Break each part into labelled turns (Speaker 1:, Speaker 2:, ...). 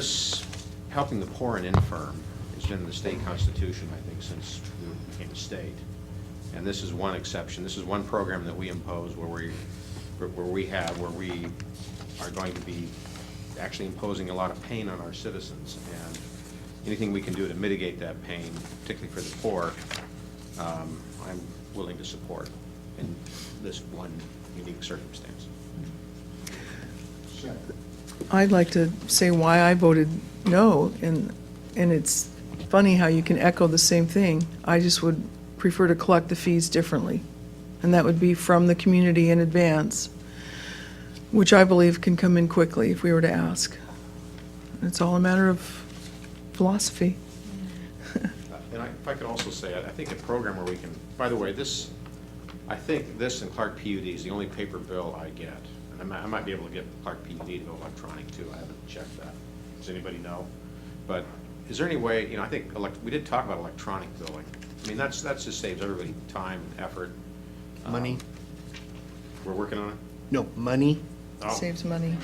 Speaker 1: This, helping the poor and infirm, has been in the state constitution, I think, since we became a state. And this is one exception. This is one program that we impose where we, where we have, where we are going to be actually imposing a lot of pain on our citizens. And anything we can do to mitigate that pain, particularly for the poor, um, I'm willing to support in this one unique circumstance.
Speaker 2: I'd like to say why I voted no, and, and it's funny how you can echo the same thing. I just would prefer to collect the fees differently, and that would be from the community in advance, which I believe can come in quickly if we were to ask. It's all a matter of philosophy.
Speaker 1: Uh, And I- if I could also say, I I think a program where we can, by the way, this, I think this and Clark PUD is the only paper bill I get. And I might, I might be able to get Clark PUD to go electronic too, I haven't checked that. Does anybody know? But is there any way, you know, I think, elec- we did talk about electronic billing. I mean, that's, that's just saves everybody time and effort.
Speaker 3: Money?
Speaker 1: We're working on it.
Speaker 3: Um, No, money?
Speaker 1: Oh.
Speaker 2: Saves money.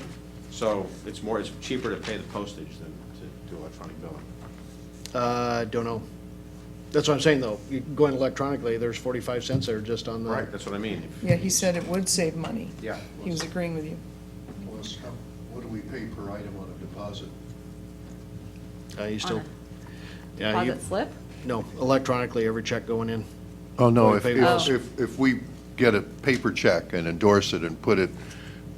Speaker 1: So it's more, it's cheaper to pay the postage than to do electronic billing.
Speaker 3: Uh, don't know. That's what I'm saying, though. You- Going electronically, there's 45 cents there just on the.
Speaker 1: Right, that's what I mean. If-
Speaker 2: Yeah, he said it would save money.
Speaker 1: Yeah.
Speaker 2: He was agreeing with you.
Speaker 4: Plus, how, what do we pay per item on a deposit?
Speaker 3: Uh, you
Speaker 5: On
Speaker 3: still,
Speaker 5: a
Speaker 3: yeah, you,
Speaker 5: Deposit slip?
Speaker 3: no, electronically, every check going in.
Speaker 6: Oh, no,
Speaker 3: Or
Speaker 6: if,
Speaker 3: paper.
Speaker 6: if,
Speaker 5: Oh.
Speaker 6: if- if we get a paper check and endorse it and put it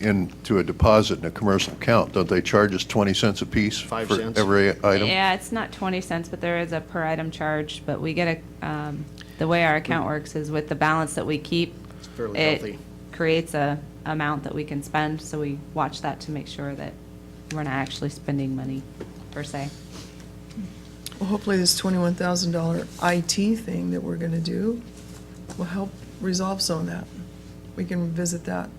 Speaker 6: into a deposit in a commercial account, don't they charge us 20 cents apiece?
Speaker 3: Five cents.
Speaker 6: For every item?
Speaker 5: Yeah, it's not twenty cents, but there is a per item charge, but we get a, um, the way our account works is with the balance that we keep.
Speaker 3: Mm. It's fairly
Speaker 5: it
Speaker 3: healthy.
Speaker 5: Creates a amount that we can spend, so we watch that to make sure that we're not actually spending money per se.
Speaker 2: Well, hopefully this twenty-one thousand dollar IT thing that we're gonna do will help resolve some of that. We can revisit that.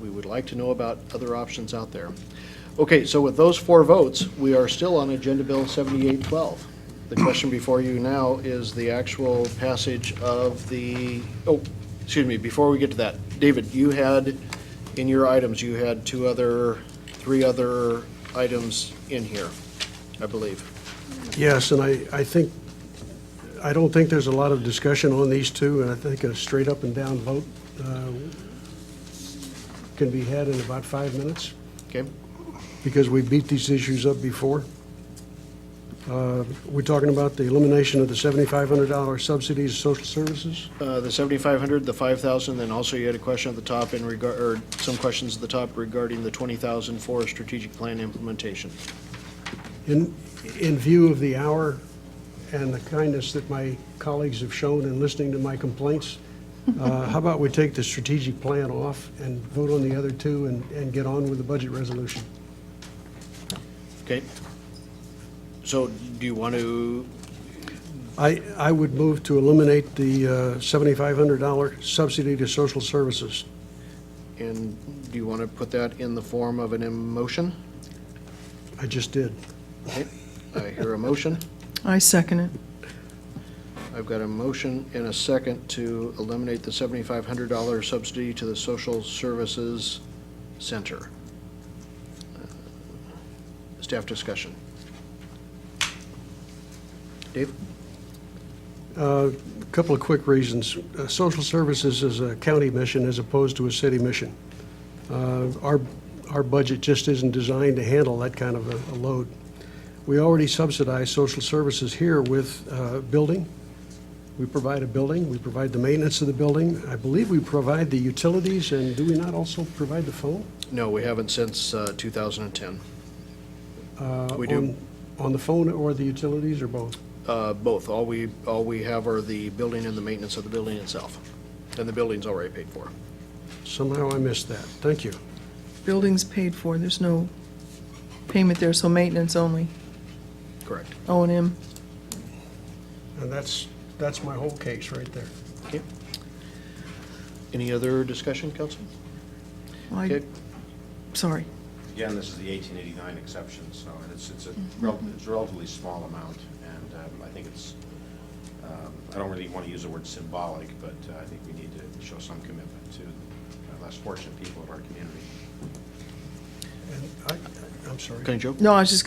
Speaker 3: We would like to know about other options out there. Okay, so with those four votes, we are still on Agenda Bill 7812. The question before you now is the actual passage of the, oh, excuse me, before we get to that, David, you had, in your items, you had two other, three other items in here, I believe.
Speaker 7: Yes, and I, I think, I don't think there's a lot of discussion on these two, and I think a straight up and down vote uh, can be had in about five minutes,
Speaker 3: Okay?
Speaker 7: because we beat these issues up before. Uh, We're talking about the elimination of the $7,500 subsidies to social services?
Speaker 3: Uh, The 7,500, the 5,000, then also you had a question at the top in regard, or some questions at the top regarding the 20,000 for strategic plan implementation.
Speaker 7: In, in view of the hour and the kindness that my colleagues have shown in listening to my complaints, uh, how about we take the strategic plan off and vote on the other two and, and get on with the budget resolution?
Speaker 3: Okay. So do you want to,
Speaker 7: I, I would move to eliminate the uh, $7,500 subsidy to social services.
Speaker 3: and do you want to put that in the form of an emotion?
Speaker 7: I just did.
Speaker 3: Okay. I hear a motion.
Speaker 2: I second it.
Speaker 3: I've got a motion and a second to eliminate the $7,500 subsidy to the Social Services Center. Uh, Staff discussion. Dave?
Speaker 7: A Uh, Couple of quick reasons. Uh, Social services is a county mission as opposed to a city mission. Uh, Our, our budget just isn't designed to handle that kind of a- a load. We already subsidize social services here with uh, building. We provide a building, we provide the maintenance of the building. I believe we provide the utilities, and do we not also provide the phone?
Speaker 3: No, we haven't since uh, 2010.
Speaker 7: Uh,
Speaker 3: We do.
Speaker 7: on- On the phone or the utilities or both?
Speaker 3: Uh, Both. All we, all we have are the building and the maintenance of the building itself. And the building's already paid for.
Speaker 7: Somehow I missed that. Thank you.
Speaker 2: Building's paid for, there's no payment there, so maintenance only,
Speaker 3: Correct.
Speaker 2: O and M.
Speaker 7: And that's, that's my whole case right there.
Speaker 3: Okay. Any other discussion, council?
Speaker 2: I,
Speaker 3: Okay.
Speaker 2: sorry.
Speaker 1: Again, this is the 1889 exception, so, and it's, it's a rel- it's a relatively small amount, and um, I think it's, um, I don't really want to use the word symbolic, but uh, I think we need to show some commitment to the less fortunate people of our community.
Speaker 7: And I, I'm sorry.
Speaker 3: Can I joke?
Speaker 2: No, I was just gonna